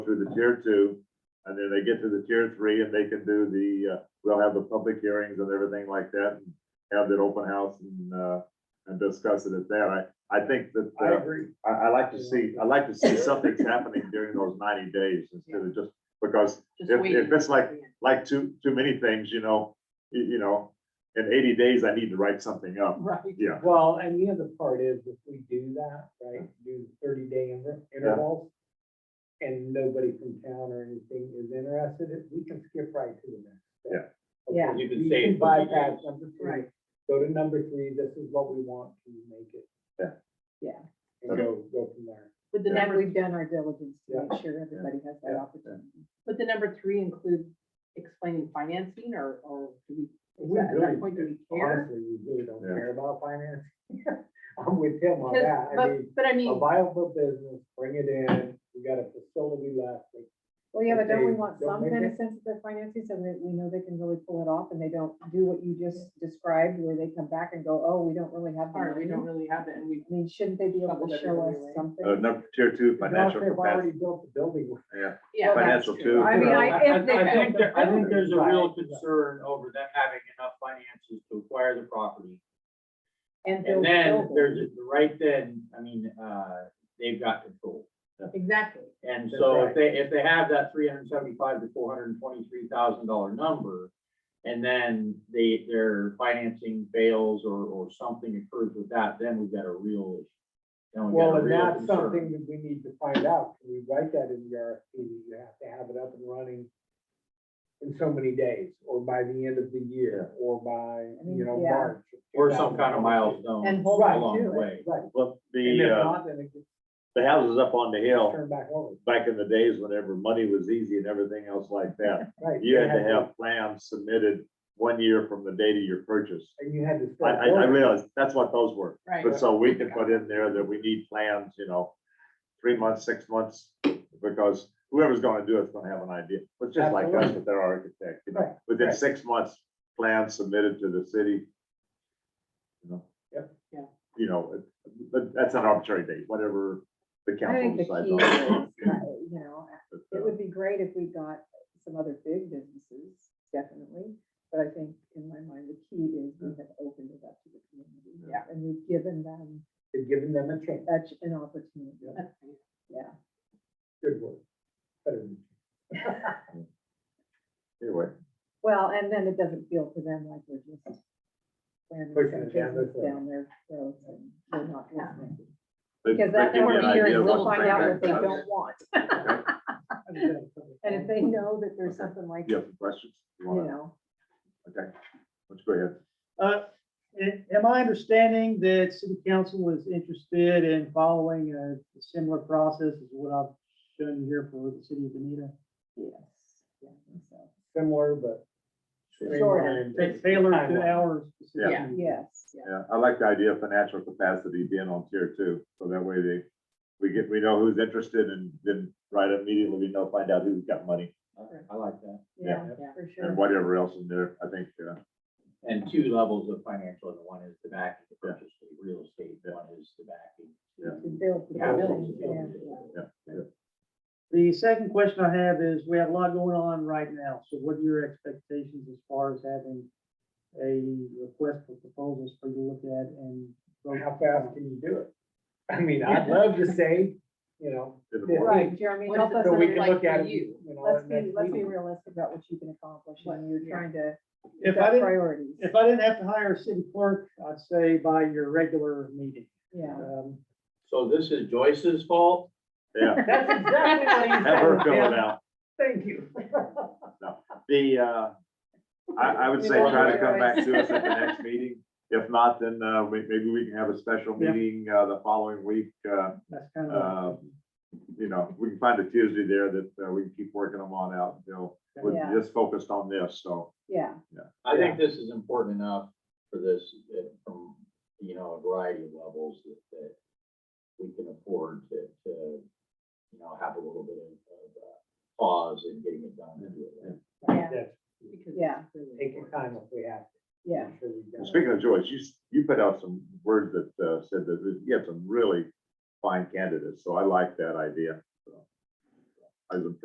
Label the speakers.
Speaker 1: to the tier two, and then they get to the tier three, and they can do the, uh, we'll have the public hearings and everything like that, and have that open house and, uh, and discuss it at that. I, I think that,
Speaker 2: I
Speaker 1: uh,
Speaker 2: agree.
Speaker 1: I, I like to see, I like to see something's happening during those ninety days instead of just, because
Speaker 3: Just
Speaker 1: if,
Speaker 3: waiting.
Speaker 1: if it's like, like too, too many things, you know, you, you know, in eighty days, I need to write something up.
Speaker 2: Right.
Speaker 1: Yeah.
Speaker 2: Well, and the other part is if we do that, right, do thirty day intervals. And nobody from town or anything is interested, it- we can skip right to the next. step. Okay,
Speaker 3: Yeah.
Speaker 4: You can
Speaker 2: we
Speaker 4: say it's gonna be
Speaker 2: Bypass number three,
Speaker 3: Right.
Speaker 2: go to number three, this is what we want to make it.
Speaker 1: Yeah.
Speaker 3: Yeah.
Speaker 2: And go, go from there.
Speaker 3: Would the
Speaker 1: Yeah.
Speaker 3: number, we've done our diligence
Speaker 2: Yeah.
Speaker 3: to make sure everybody has that
Speaker 2: Yeah.
Speaker 3: opportunity. Would the number three include explaining financing or, or do we, is
Speaker 2: We
Speaker 3: that- at
Speaker 2: really-
Speaker 3: that point, do we care?
Speaker 2: Honestly, we really don't
Speaker 1: Yeah.
Speaker 2: care about finance. I'm with him on
Speaker 3: 'Cause-
Speaker 2: that, I mean,
Speaker 3: But, but I
Speaker 2: a
Speaker 3: mean,
Speaker 2: viable business, bring it in, we got a facility left, like,
Speaker 5: Well, yeah, but don't we
Speaker 2: they
Speaker 5: want
Speaker 2: don't
Speaker 5: some
Speaker 2: make
Speaker 5: kind
Speaker 2: it?
Speaker 5: of sense of their finances so that we know they can really pull it off and they don't do what you just described where they come back and go, oh, we don't really have. the
Speaker 3: or we
Speaker 5: money."
Speaker 3: don't really have it and we,
Speaker 5: I mean, shouldn't they be able
Speaker 3: Shuffled
Speaker 5: to show
Speaker 3: everybody
Speaker 5: us
Speaker 3: away.
Speaker 5: something?
Speaker 1: Uh, number, tier two,
Speaker 2: As long as
Speaker 1: financial
Speaker 2: They've already
Speaker 1: capacity,
Speaker 2: built the building.
Speaker 1: yeah,
Speaker 3: yeah. that's
Speaker 1: Financial
Speaker 3: true.
Speaker 1: too.
Speaker 5: I mean, I- if they-
Speaker 4: I think, there- I think there's a real
Speaker 2: Right.
Speaker 4: concern over them having enough finances to acquire the property.
Speaker 5: And
Speaker 4: And
Speaker 5: build
Speaker 4: then
Speaker 5: buildings?
Speaker 4: there's, right then, I mean, uh, they've got control.
Speaker 3: Exactly.
Speaker 4: And
Speaker 2: That's
Speaker 4: so
Speaker 2: right.
Speaker 4: if they, if they have that three hundred and seventy-five to four hundred and twenty-three thousand dollar number, and then they, their financing fails or, or something occurs with that, then we've got a real issue. Then we've got
Speaker 2: Well,
Speaker 4: a
Speaker 2: and
Speaker 4: real
Speaker 2: that's
Speaker 4: concern.
Speaker 2: something that we need to find out. Can we write that in the RFP? that You have to have it up and running in so many days, or by the end of the year, or by, you know,
Speaker 5: Yeah.
Speaker 2: March.
Speaker 4: Or some kind of milestone
Speaker 5: And hold on
Speaker 4: along
Speaker 5: to
Speaker 4: the
Speaker 5: it.
Speaker 4: way.
Speaker 2: Right.
Speaker 1: well,
Speaker 2: And if
Speaker 1: the, uh,
Speaker 2: not, then it gets
Speaker 1: the houses up on the hill,
Speaker 2: turned back over.
Speaker 1: back in the days whenever money was easy and everything else like that.
Speaker 2: Right.
Speaker 1: You
Speaker 2: they
Speaker 1: had to have plans submitted one year from the date of your purchase.
Speaker 2: And you had to.
Speaker 1: I,
Speaker 2: start
Speaker 1: I, I
Speaker 2: building.
Speaker 1: realize, that's what those were,
Speaker 3: Right.
Speaker 1: but so we can put in there that we need plans, you know, three months, six months, because whoever's gonna do it's gonna have an idea, but just like us
Speaker 2: Absolutely.
Speaker 1: with their architect, you know,
Speaker 2: Right,
Speaker 1: within
Speaker 2: right.
Speaker 1: six months, plans submitted to the city. You know?
Speaker 2: Yep.
Speaker 3: Yeah.
Speaker 1: You know, it- but that's an arbitrary date, whatever the
Speaker 5: I
Speaker 1: council
Speaker 5: think the key
Speaker 1: decides
Speaker 5: is,
Speaker 1: on.
Speaker 5: uh, you know,
Speaker 1: But,
Speaker 5: it
Speaker 1: uh,
Speaker 5: would be great if we got some other big businesses, definitely. But I think in my mind, the key is we have opened it up to the community.
Speaker 3: Yeah.
Speaker 5: And we've given them
Speaker 2: They're giving them a chance.
Speaker 5: such an opportunity.
Speaker 2: Yeah.
Speaker 5: Yeah.
Speaker 2: Good work. Better than-
Speaker 1: Anyway,
Speaker 5: Well, and then it doesn't feel to them like we're just slamming
Speaker 2: Pushing
Speaker 5: some
Speaker 2: it down their
Speaker 5: business
Speaker 2: throat.
Speaker 5: down their throats and we're not listening.
Speaker 1: but-
Speaker 5: Because
Speaker 1: but
Speaker 5: that
Speaker 1: give you
Speaker 5: number
Speaker 1: an
Speaker 5: here,
Speaker 1: idea
Speaker 5: is
Speaker 1: of
Speaker 5: we'll
Speaker 1: what's
Speaker 5: find out
Speaker 1: being
Speaker 5: what they
Speaker 1: done.
Speaker 5: don't want. And if they know that there's
Speaker 1: Okay.
Speaker 5: something like,
Speaker 1: You
Speaker 5: you
Speaker 1: have some questions? You wanna-
Speaker 5: know,
Speaker 1: Okay, let's go ahead.
Speaker 6: Uh, a- Am I understanding that city council is interested in following a similar process as what I've shown you here for the city of Benita?
Speaker 5: yes. yeah, I think so.
Speaker 2: Similar, but.
Speaker 5: Shorter.
Speaker 6: Ta- Tailored to
Speaker 2: Timeline.
Speaker 6: our specific
Speaker 3: Yeah.
Speaker 6: needs.
Speaker 5: Yes, yeah.
Speaker 1: Yeah, I like the idea of financial capacity being on tier two, so that way they, we get, we know who's interested and then right immediately we know, find out who's got money
Speaker 4: I like that.
Speaker 5: yeah,
Speaker 3: Yeah.
Speaker 5: for
Speaker 1: and
Speaker 5: sure.
Speaker 1: whatever else in there, I think, uh,
Speaker 4: And two levels of financial, and one is the backing, the
Speaker 1: Yeah.
Speaker 4: purchase, of the real estate, one is the backing.
Speaker 5: To build the
Speaker 4: Yeah.
Speaker 5: building, yeah.
Speaker 6: The second question I have is, we have a lot going on right now, so what are your expectations as far as having a request for proposals for you to look at and? vote?
Speaker 2: How fast can you do it? I mean, I'd love to say, you know,
Speaker 1: in the
Speaker 2: Yeah.
Speaker 1: morning.
Speaker 5: Right, Jeremy,
Speaker 3: What
Speaker 5: help
Speaker 3: is it
Speaker 5: us,
Speaker 2: so we
Speaker 3: sounds
Speaker 2: can
Speaker 5: under-
Speaker 3: like
Speaker 2: look at
Speaker 3: for
Speaker 2: it.
Speaker 3: you.
Speaker 2: you know,
Speaker 5: let's
Speaker 2: next
Speaker 5: be, let's be
Speaker 2: week.
Speaker 5: realistic about what you can accomplish when you're
Speaker 3: yeah.
Speaker 5: trying to.
Speaker 6: If
Speaker 5: set
Speaker 6: I didn't,
Speaker 5: Priorities,
Speaker 6: if I didn't have to hire a city clerk, I'd say by your regular meeting.
Speaker 5: yeah.
Speaker 6: Um,
Speaker 4: So this is Joyce's fault?
Speaker 1: Yeah,
Speaker 2: That's exactly what he
Speaker 1: have her fill it
Speaker 2: said.
Speaker 1: out.
Speaker 2: Thank you.
Speaker 1: The, uh, I, I would say try to come back to us at the next meeting. If not, then, uh, we- maybe we can have a special
Speaker 6: Yeah.
Speaker 1: meeting, uh, the following week, uh,
Speaker 6: That's kind
Speaker 1: uh,
Speaker 6: of.
Speaker 1: you know, we can find a Tuesday there that, uh, we can keep working them on out until
Speaker 5: Yeah.
Speaker 1: we're just focused on this, so.
Speaker 5: Yeah,
Speaker 4: I think this is important enough for this, uh, from, you know, a variety of levels that, that we can afford to, to, you know, have a little bit of, of uh, pause in getting it done. and do it right.
Speaker 5: yeah,
Speaker 3: Because
Speaker 5: Yeah.
Speaker 3: it's really
Speaker 2: Take your
Speaker 3: important.
Speaker 2: time if we have. to.
Speaker 5: yeah.
Speaker 2: I'm sure we've got
Speaker 1: And
Speaker 2: it.
Speaker 1: Speaking of Joyce, you, s- you put out some words that uh, said that you have some really fine candidates, so I like that idea. so. I was impressed